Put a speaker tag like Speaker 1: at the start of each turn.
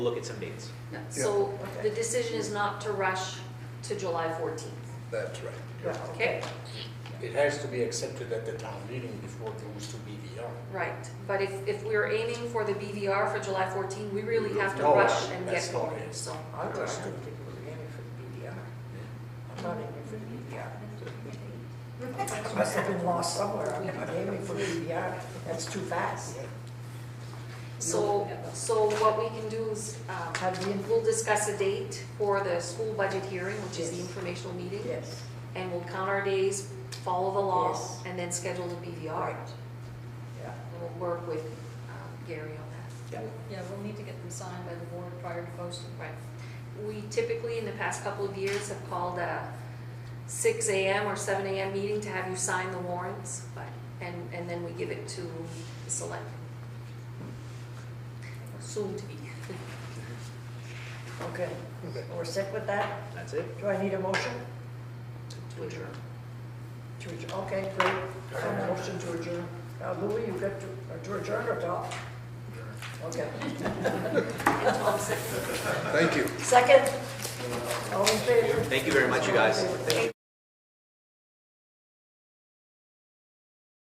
Speaker 1: look at some dates.
Speaker 2: No, So
Speaker 3: okay.
Speaker 2: the decision is not to rush to July 14th,
Speaker 4: That's right.
Speaker 3: Yeah,
Speaker 2: okay?
Speaker 5: It has to be accepted at the town meeting before it goes to BVR.
Speaker 2: Right, but if, if we're aiming for the BVR for July 14th, we really have to
Speaker 5: No,
Speaker 2: rush and
Speaker 5: that's
Speaker 2: get
Speaker 5: not
Speaker 2: going,
Speaker 5: it.
Speaker 2: so.
Speaker 3: I don't think it was aiming for the BDR. I'm not aiming for the BDR. I Must have been lost somewhere, I'm not aiming for the BDR, that's too fast.
Speaker 2: So, so what we can do is, um,
Speaker 3: Have the-
Speaker 2: we'll discuss a date for the school budget hearing, which is the
Speaker 3: Yes.
Speaker 2: informational meeting.
Speaker 3: Yes,
Speaker 2: And we'll count our days, follow the law,
Speaker 3: Yes.
Speaker 2: and then schedule the BVR.
Speaker 3: Right. yeah.
Speaker 2: And we'll work with um, Gary on that.
Speaker 6: Yeah, we'll need to get them signed by the board prior to posting.
Speaker 2: Right. We typically, in the past couple of years, have called a six AM or seven AM meeting to have you sign the warrants, but, and, and then we give it to the select. Soon to be.
Speaker 3: Okay, we're set with that?
Speaker 1: That's it?
Speaker 3: Do I need a motion?
Speaker 2: To adjourn.
Speaker 3: To adjourn, okay, great. So motion to adjourn. Now Louis, you get to, or to adjourn or not? Okay.
Speaker 2: And Tom said-
Speaker 4: Thank you.
Speaker 3: Second? All in favor?
Speaker 1: Thank you very much, you guys. Thank you.